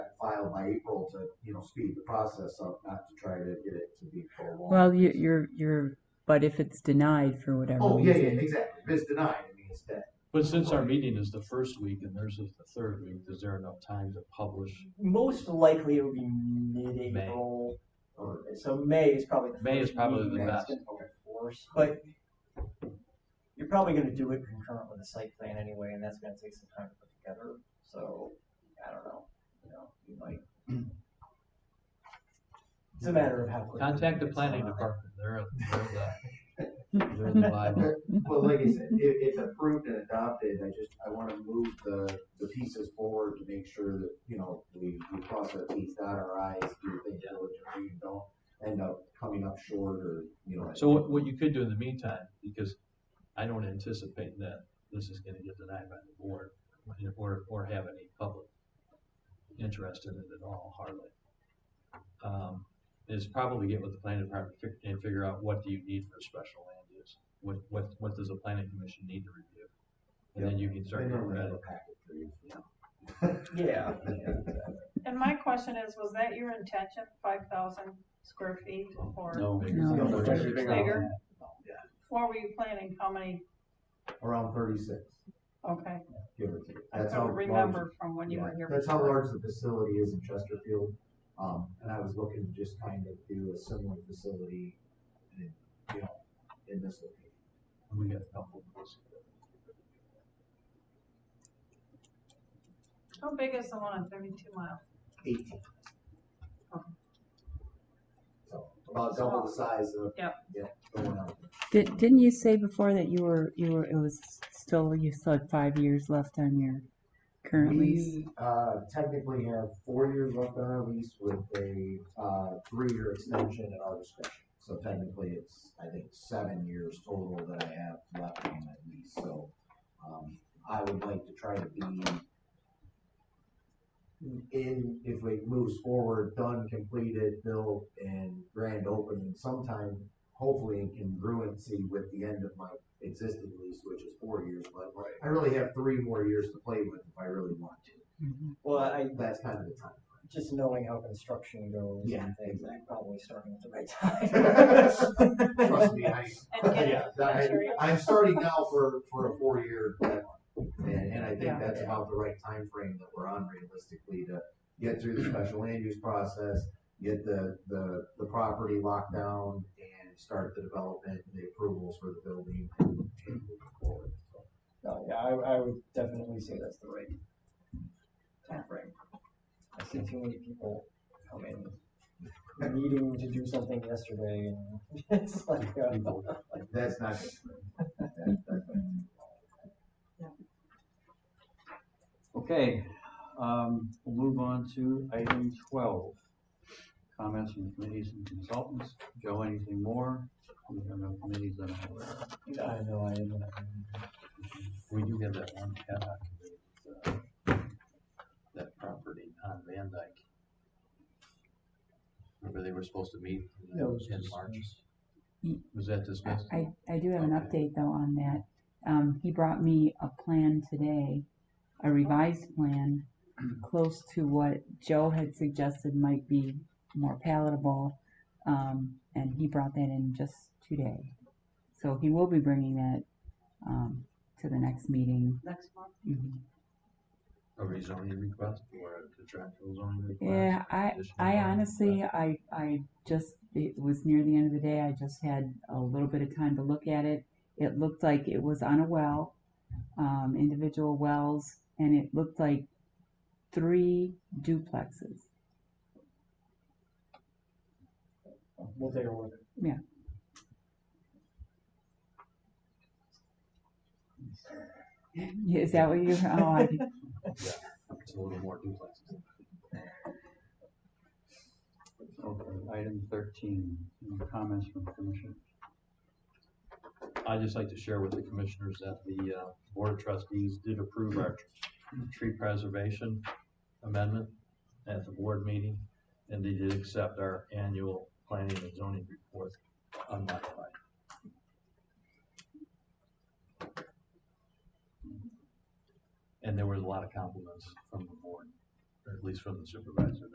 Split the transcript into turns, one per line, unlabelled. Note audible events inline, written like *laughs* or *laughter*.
filed by April to, you know, speed the process up, not to try to get it to be prolonged.
Well, you- you're, you're, but if it's denied for whatever
Oh, yeah,
reason.
yeah, exactly. If it's denied, I mean, it's dead.
But since our meeting is the first week and theirs is the third week, is there enough time to publish?
Most likely it'll be mid-April.
Or-
So May is probably the
May is
first
probably
meeting
the
that's
best.
gonna be enforced, But you're probably gonna do it concurrent with the site plan anyway, and that's gonna take some time to put together. So I don't know, you know, you might. It's a matter of how. quickly
Contact the
it's
planning
done.
department, they're, they're the, they're the Bible.
Well, like I said, if it's approved and adopted, I just, I wanna move the, the pieces forward to make sure that, you know, we, we cross our Ts, dot our Is, do things diligently, and don't end up coming up short or, you know.
So what, what you could do in the meantime, because I don't anticipate that this is gonna get denied by the board, or, or have any public interest in it at all, hardly. Um, Is probably get with the planning department fi- and figure out what do you need for a special land use? What, what, what does the planning commission need to review? And then you can start.
And then
getting
we
ready.
have a packet for you, you know.
Yeah.
And my question is, was that your intention, five thousand square feet, or
No.
No.
No, it's
bigger.
bigger? What were you planning, how many,
Around thirty-six,
okay,
give or take.
I
That's how
don't
large-
remember from when you
Yeah,
were here.
That's how
before.
large the facility is in Chesterfield, um, and I was looking to just kind of do a similar facility in, you know, in this location.
We got a couple of those.
How big is the one on thirty-two mile?
*laughs* eighteen. So about double the size of.
Yep.
Yeah, the one out.
Did, didn't you say before that you were, you were, it was still, you still had five years left on your current lease?
We, uh, technically have four years left on our lease with a, uh, three-year extension at our discretion. So technically, it's, I think, seven years total that I have left on that lease, so, um, I would like to try to be in, if it moves forward, done, completed, built, and grand opening sometime, hopefully in congruency with the end of my existing lease, which is four years, but I really have three more years to play with if I really want to.
Mhm.
Well, I,
That's kind of the time.
just knowing how construction goes
Yeah,
and things, I'm probably starting at the right *laughs* time.
Trust me, I,
And get
yeah, I,
material?
I'm starting now for, for a four-year deadline. And, and I think
Yeah.
that's about the right time frame that we're on realistically to get through the special land use process, get the, the, the property locked down and start the development, the approvals for the building and and move forward. So,
No, yeah, I, I would definitely say that's the right timeframe. I see too many people come in needing to do something yesterday and *laughs* it's like, uh,
That's not. that- that's not-
Okay, um, we'll move on to item twelve. Comments from committees and consultants. Joe, anything more? We have no committees that I'm aware of.
I know, I am.
We do have that one cat uh, that property on Van Dyke. Remember they were supposed to meet in-
Yeah, it was
in
just-
March?
Mm.
Was that dismissed?
I, I do have an
Okay.
update though on that. Um, he brought me a plan today, a revised plan, close to what Joe had suggested might be more palatable. Um, and he brought that in just today. So he will be bringing that, um, to the next meeting.
Next month,
Mhm.
A rezoning request or a contractual zoning request?
Yeah, I,
Additional
I
zoning
honestly,
request?
I, I just, it was near the end of the day, I just had a little bit of time to look at it. It looked like it was on a well, um, individual wells, and it looked like three duplexes.
We'll take a look.
Yeah. Is that what you, oh, I,
It's a little more duplexes.
Okay, item thirteen, any comments from commission.
I'd just like to share with the commissioners that the uh, Board of Trustees did approve our tree preservation amendment at the board meeting, and they did accept our annual planning and zoning report unmodified. And there was a lot of compliments from the board, or at least from the supervisor,